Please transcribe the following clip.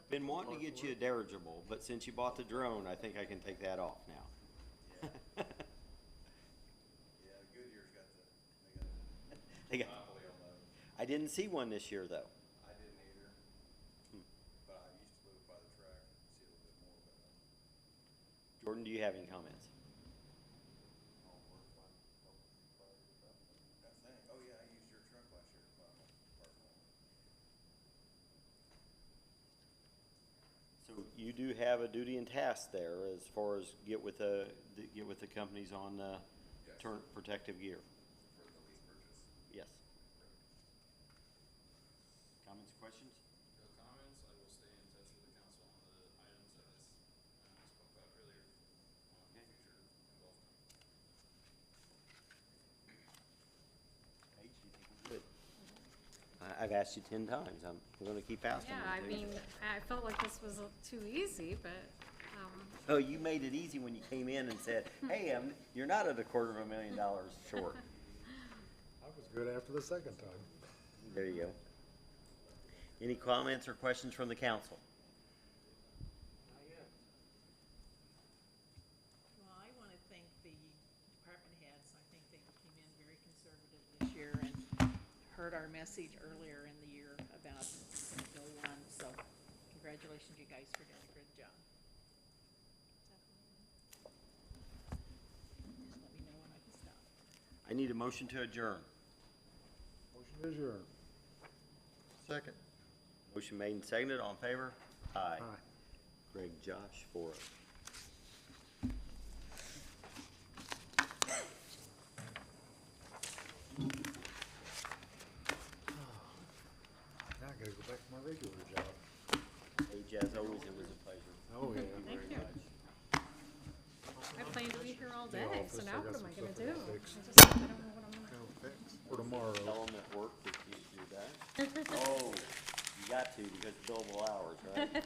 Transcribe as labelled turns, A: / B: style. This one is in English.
A: Been wanting to get you a dirigible, but since you bought the drone, I think I can take that off now.
B: Yeah, Goodyear's got the,
A: They
B: they got the
A: got-
B: monopoly on those.
A: I didn't see one this year, though.
B: I didn't either. But I used to live by the track and see a little bit more, but um,
A: Jordan, do you have any comments?
B: all work fine. That thing, oh yeah, I used your truck last year to buy my park lawn.
A: So you do have a duty and task there as far as get with the, the- get with the companies on, uh,
B: Yes.
A: turn, protective gear.
B: for the lease purchase.
A: Yes. Comments, questions?
C: No comments, I will stay in touch with the council on the items that I s- uh, spoke about earlier on
A: Okay.
C: future involvement.
A: Paige, you think we're good? I, I've asked you ten times. I'm gonna keep asking.
D: Yeah,
A: you
D: I
A: to.
D: mean, I felt like this was a- too easy, but, um,
A: Oh, you made it easy when you came in and said, hey, um, you're not at a quarter of a million dollars short.
E: I was good after the second time.
A: There you go. Any comments or questions from the council?
F: Well, I want to thank the department heads. I think they came in very conservative this year and heard our message earlier in the year about Bill One. So congratulations, you guys, for doing a good job. Just let me know when I can stop.
A: I need a motion to adjourn.
E: Motion is yours. Second.
A: Motion made and seconded, all in favor? Aye.
E: Aye.
A: Greg Josh for it.
E: Now I gotta go back to my regular job.
A: Paige, as always, it was a pleasure.
E: Oh, yeah.
D: thank you. I planned to be here all
E: The
D: day,
E: office,
D: so
E: I
D: now
E: got
D: what am
E: some
D: I gonna
E: stuff
D: do?
E: I gotta
D: I
E: fix.
D: just, I don't know what I'm gonna,
E: Go fix For tomorrow.
A: Tell them at work that you do that. Oh, you got to because billable hours, right?